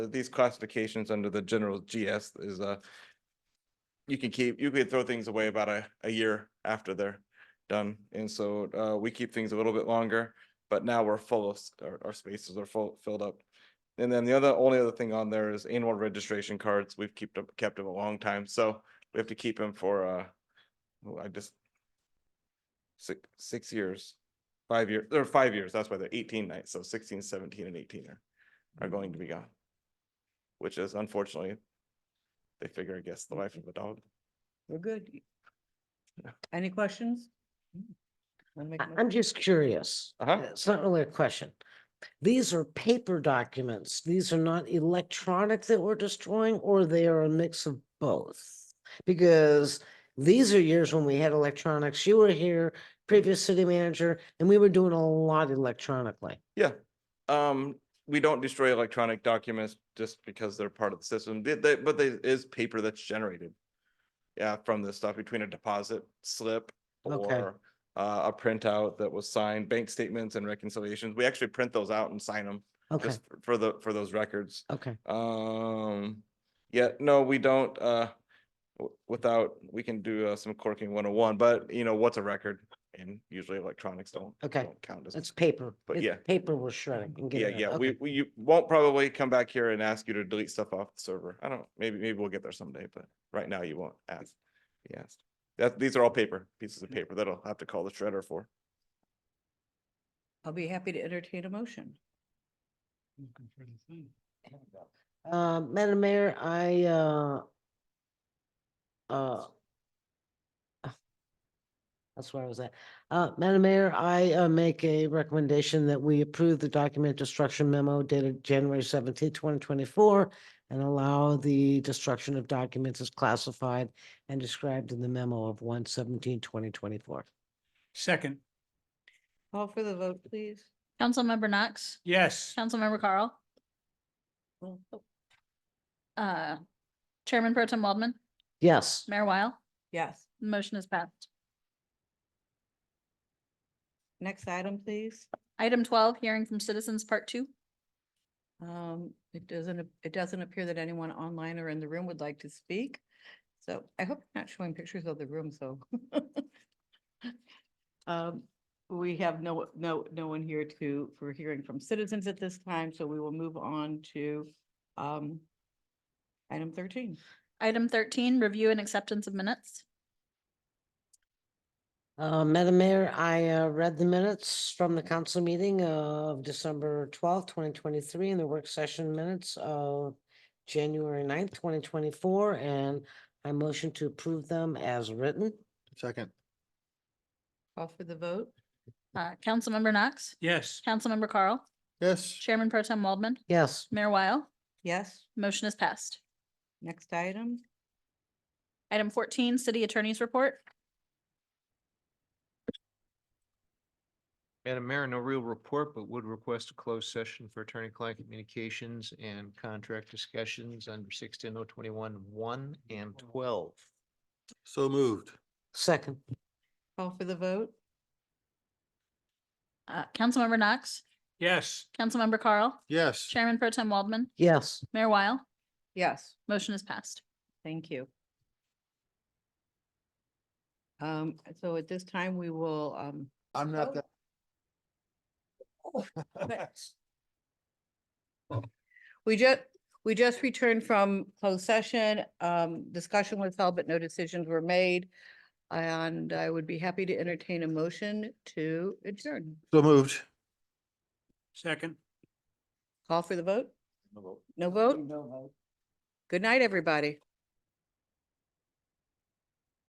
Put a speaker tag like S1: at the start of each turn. S1: these classifications under the general GS is uh you can keep, you could throw things away about a, a year after they're done. And so uh, we keep things a little bit longer, but now we're full of, s- our, our spaces are full, filled up. And then the other, only other thing on there is annual registration cards. We've kept them, kept them a long time, so we have to keep them for uh, oh, I just six, six years, five years, or five years, that's why they're eighteen nights, so 16, 17, and eighteen are, are going to be gone. Which is unfortunately, they figure, I guess, the life of a dog.
S2: We're good.
S1: Yeah.
S2: Any questions? Wanna make a
S3: I-
S2: motion?
S3: I'm just curious.
S1: Uh-huh.
S3: and It's not really a question. These are paper documents. These are not electronic that we're destroying, or they are a mix of both? Because these are years when we had electronics. You were here, previous city manager, and we were doing a lot electronically.
S1: Yeah, um, we don't destroy electronic documents just because they're part of the system, They- they- but there is paper that's generated. Yeah, from this stuff between a deposit slip
S3: Okay.
S1: or uh, a printout that was signed, bank statements and reconciliations. We actually print those out and sign them
S3: Okay,
S1: just for the, for those records.
S3: okay.
S1: Um, yeah, no, we don't, uh, w- without, we can do uh, some corking one oh one, but you know, what's a record? And usually electronics don't.
S3: Okay.
S1: don't Count as.
S3: It's paper.
S1: but
S3: It's
S1: yeah.
S3: Paper we're shredding. and
S1: Yeah,
S3: getting rid
S1: yeah,
S3: of.
S1: we,
S3: Okay.
S1: we you won't probably come back here and ask you to delete stuff off the server. I don't, maybe, maybe we'll get there someday, but right now you won't ask. be asked. that, these are all paper, pieces of paper that I'll have to call the shredder for.
S2: I'll be happy to entertain a motion.
S3: Uh, Madam Mayor, I, uh, uh, ah, that's where I was at. Uh, Madam Mayor, I, uh, make a recommendation that we approve the document destruction memo dated January seventeenth, twenty twenty-four, and allow the destruction of documents as classified and described in the memo of 2024.
S4: Second,
S2: Call for the vote, please.
S5: Councilmember Knox,
S4: yes.
S5: Councilmember Carl,
S2: Well, oh,
S5: uh, Chairman Pro Tem Waldman,
S3: Yes,
S5: Mayor Weil,
S2: Yes.
S5: motion is passed.
S2: Next item, please.
S5: Item twelve, hearing from citizens, part two.
S2: Um, it doesn't, ap- it doesn't appear that anyone online or in the room would like to speak. So I hope you're not showing pictures of the room, so. Um, we have no, no, no one here to, for hearing from citizens at this time, so we will move on to, um, item thirteen.
S5: Item thirteen, review and acceptance of minutes.
S3: Uh, Madam Mayor, I, uh, read the minutes from the council meeting of December twelfth, twenty twenty-three, and the work session minutes of January 9th, twenty twenty-four, and I motion to approve them as written.
S6: Second,
S2: Call for the vote?
S5: Uh, Councilmember Knox,
S4: Yes,
S5: Councilmember Carl,
S6: yes,
S5: Chairman Pro Tem Waldman,
S3: Yes,
S5: Mayor Weil,
S2: Yes,
S5: motion is passed.
S2: next item?
S5: Item fourteen, city attorney's report.
S7: Madam Mayor, no real report, but would request a closed session for attorney-client communications and contract discussions under sixteen oh twenty-one, one and twelve.
S6: so moved,
S3: second,
S2: Call for the vote?
S5: Uh, Councilmember Knox,
S4: yes.
S5: Councilmember Carl,
S6: yes.
S5: Chairman Pro Tem Waldman,
S3: yes.
S5: Mayor Weil,
S2: Yes.
S5: motion is passed.
S2: Thank you. Um, so at this time, we will, um,
S6: I'm not
S2: Oh.
S6: that.
S2: we just, we just returned from closed session. Um, discussion was held, but no decisions were made. And I would be happy to entertain a motion to adjourn.
S6: So moved.
S4: Second.
S2: Call for the vote? No vote? Good night, everybody.